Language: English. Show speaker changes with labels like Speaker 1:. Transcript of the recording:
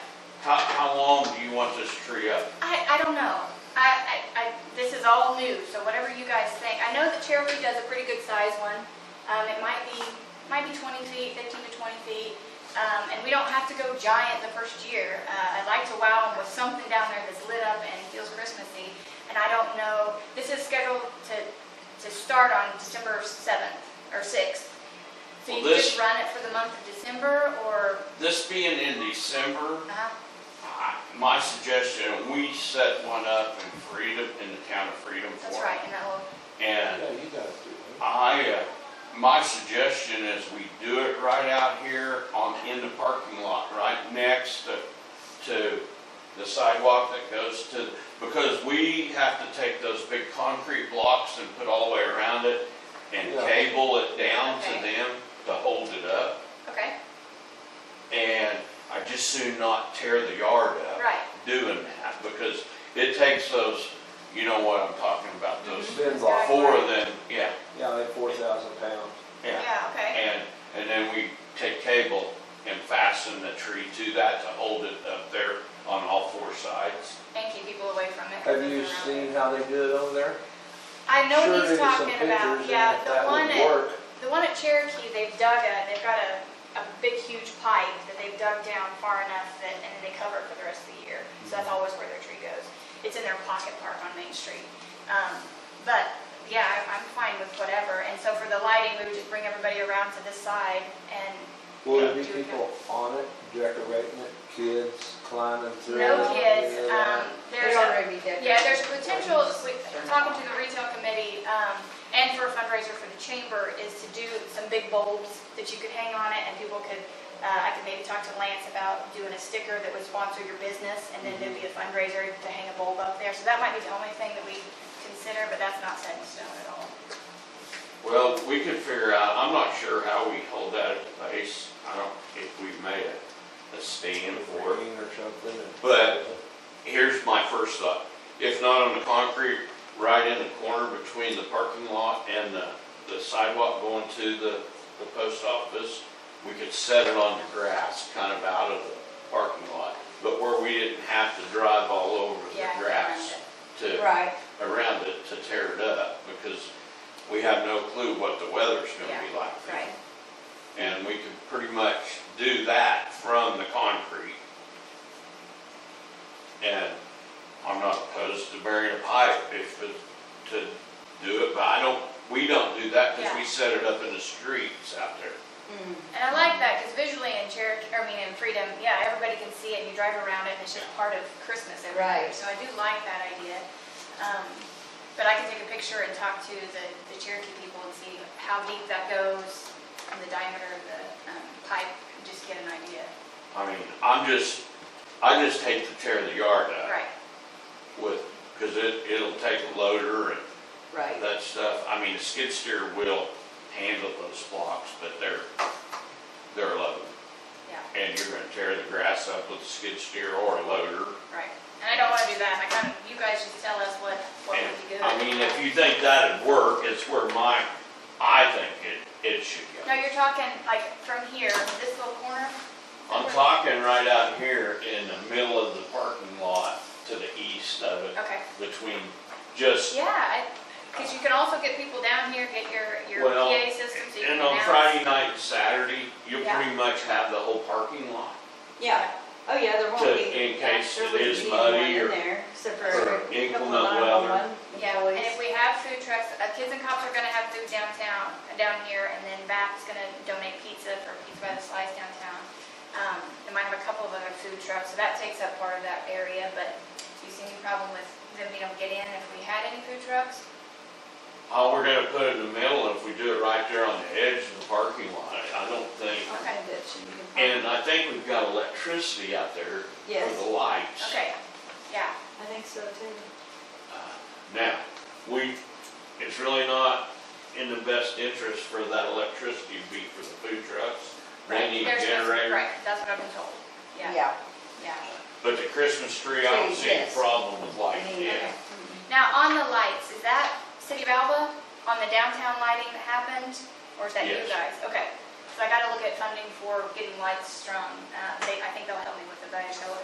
Speaker 1: How, how long do you want this tree up?
Speaker 2: I, I don't know. I, I, I, this is all new, so whatever you guys think. I know that Cherokee does a pretty good size one. Um, it might be, might be 20 feet, 15 to 20 feet. Um, and we don't have to go giant the first year. Uh, I'd like to wow them with something down there that's lit up and feels Christmassy. And I don't know, this is scheduled to, to start on December 7th or 6th. So you
Speaker 1: Well,
Speaker 2: just
Speaker 1: this-
Speaker 2: run it for the month of December or,
Speaker 1: This being in December,
Speaker 2: uh
Speaker 1: I- my suggestion, we set one up in Freedom, in the town of Freedom
Speaker 2: that's
Speaker 1: for
Speaker 2: right,
Speaker 1: it.
Speaker 2: and that will,
Speaker 1: And
Speaker 3: Yeah, you guys do.
Speaker 1: I, uh, my suggestion is we do it right out here on, in the parking lot, right next to, to the sidewalk that goes to, because we have to take those big concrete blocks and put all the way around it and
Speaker 3: Yeah.
Speaker 1: cable it down to
Speaker 2: Okay.
Speaker 1: them to hold it up.
Speaker 2: okay,
Speaker 1: And I just soon not tear the yard up
Speaker 2: right.
Speaker 1: doing that because it takes those, you know what I'm talking about,
Speaker 2: Mm-hmm.
Speaker 1: those
Speaker 3: Bin block.
Speaker 1: four of them, yeah,
Speaker 3: Yeah, like four thousand pounds.
Speaker 1: yeah.
Speaker 2: Yeah, okay.
Speaker 1: And, and then we take cable and fasten the tree to that to hold it up there on all four sides.
Speaker 2: and keep people away from it.
Speaker 3: Have you seen how they do it over there?
Speaker 2: I know
Speaker 3: Sure,
Speaker 2: what he's
Speaker 3: there's some
Speaker 2: talking
Speaker 3: pictures,
Speaker 2: about,
Speaker 3: and
Speaker 2: yeah,
Speaker 3: if
Speaker 2: the
Speaker 3: that
Speaker 2: one
Speaker 3: would
Speaker 2: at,
Speaker 3: work,
Speaker 2: the one at Cherokee, they've dug a, they've got a, a big huge pipe that they've dug down far enough that, and then they cover it for the rest of the year. So that's always where their tree goes. It's in their pocket park on Main Street. Um, but, yeah, I- I'm fine with whatever. And so for the lighting, we would just bring everybody around to this side and
Speaker 3: Will there be people on it, decorating it, kids climbing through?
Speaker 2: no
Speaker 3: it,
Speaker 2: kids,
Speaker 3: you know,
Speaker 2: um, there's.
Speaker 4: There's
Speaker 2: a-
Speaker 4: already decorated.
Speaker 2: Yeah, there's potential, we- talking to the retail committee, um, and for a fundraiser for the chamber, is to do some big bulbs that you could hang on it, and people could, uh, I could maybe talk to Lance about doing a sticker that would sponsor your business, and then there'd be a fundraiser to hang a bulb up there, so that might be the only thing that we consider, but that's not set in stone at all.
Speaker 1: Well, we could figure out, I'm not sure how we hold that at the base. I don't, if we've made a, a stand for it.
Speaker 3: green Or something. and-
Speaker 1: But- Here's my first thought. If not on the concrete, right in the corner between the parking lot and the, the sidewalk going to the, the post office, we could set it on the grass, kind of out of the parking lot, but where we didn't have to drive all over
Speaker 2: Yeah,
Speaker 1: the grass to,
Speaker 4: Right,
Speaker 1: around it to tear it up, because we have no clue what the weather's gonna be like.
Speaker 2: Right.
Speaker 1: And we could pretty much do that from the concrete. And I'm not opposed to burying a pipe if it, to do it, but I don't, we don't do that because we
Speaker 2: Yeah.
Speaker 1: set it up in the streets out there.
Speaker 4: mm,
Speaker 2: And I like that, because visually in Cherokee, I mean, in Freedom, yeah, everybody can see it, and you drive around it, and it's just part of Christmas every year.
Speaker 4: Right.
Speaker 2: So I do like that idea. Um, But I can take a picture and talk to the the Cherokee people and see how deep that goes, and the diameter of the um, pipe, and just get an idea.
Speaker 1: I mean, I'm just, I just hate to tear the yard up
Speaker 2: Right,
Speaker 1: with, because it, it'll take a loader and
Speaker 4: right.
Speaker 1: that stuff, I mean, a skid steer will handle those blocks, but they're, they're loaded.
Speaker 2: yeah,
Speaker 1: And you're gonna tear the grass up with a skid steer or a loader.
Speaker 2: right. And I don't want to do that, I kind of, you guys just tell us what, what
Speaker 1: And,
Speaker 2: would be good.
Speaker 1: I mean, if you think that'd work, it's where my, I think it, it should
Speaker 2: No,
Speaker 1: go.
Speaker 2: you're talking, like, from here, this little corner?
Speaker 1: I'm talking right out here in the middle of the parking lot to the east of it,
Speaker 2: Okay.
Speaker 1: between just,
Speaker 2: Yeah, because you can also get people down here, get your, your
Speaker 1: Well,
Speaker 2: PA system so you can
Speaker 1: and on
Speaker 2: announce.
Speaker 1: Friday night and Saturday, you'll
Speaker 2: Yeah.
Speaker 1: pretty much have the whole parking lot.
Speaker 4: Yeah, oh yeah, there won't
Speaker 1: To-
Speaker 4: be.
Speaker 1: in case
Speaker 4: there
Speaker 1: it
Speaker 4: wouldn't
Speaker 1: is
Speaker 4: be anyone
Speaker 1: muddy
Speaker 4: in
Speaker 1: or-
Speaker 4: there, Except for.
Speaker 1: or
Speaker 4: a couple
Speaker 1: inclement
Speaker 4: of
Speaker 1: weather.
Speaker 4: one-on-one
Speaker 2: Yeah, and
Speaker 4: employees.
Speaker 2: if we have food trucks, uh, Kids and Cops are gonna have food downtown, down here, and then Bap's gonna donate pizza for Pizza by the Slice downtown. Um, They might have a couple of other food trucks, so that takes up part of that area, but do you see any problem with them being able to get in if we had any food trucks?
Speaker 1: All we're gonna put in the middle, if we do it right there on the edge of the parking lot, I don't think,
Speaker 4: I think that should be fine.
Speaker 1: and I think we've got electricity out there
Speaker 4: Yes.
Speaker 1: for the lights.
Speaker 2: Okay, yeah,
Speaker 4: I think so too.
Speaker 1: Now, we, it's really not in the best interest for that electricity to be for the food trucks.
Speaker 2: right.
Speaker 1: They need a
Speaker 2: There's no-
Speaker 1: generator,
Speaker 2: Right, that's what I've been told, yeah, yeah.
Speaker 1: but the Christmas tree, I don't
Speaker 4: Trees,
Speaker 1: see a
Speaker 4: yes.
Speaker 1: problem with
Speaker 4: I
Speaker 1: lighting
Speaker 4: mean,
Speaker 1: it.
Speaker 2: Now, on the lights, is that City of Alba on the downtown lighting that happened? Or is that you
Speaker 1: Yes.
Speaker 2: guys? Okay, so I gotta look at funding for getting lights strung. Uh, they, I think they'll help me with the budget,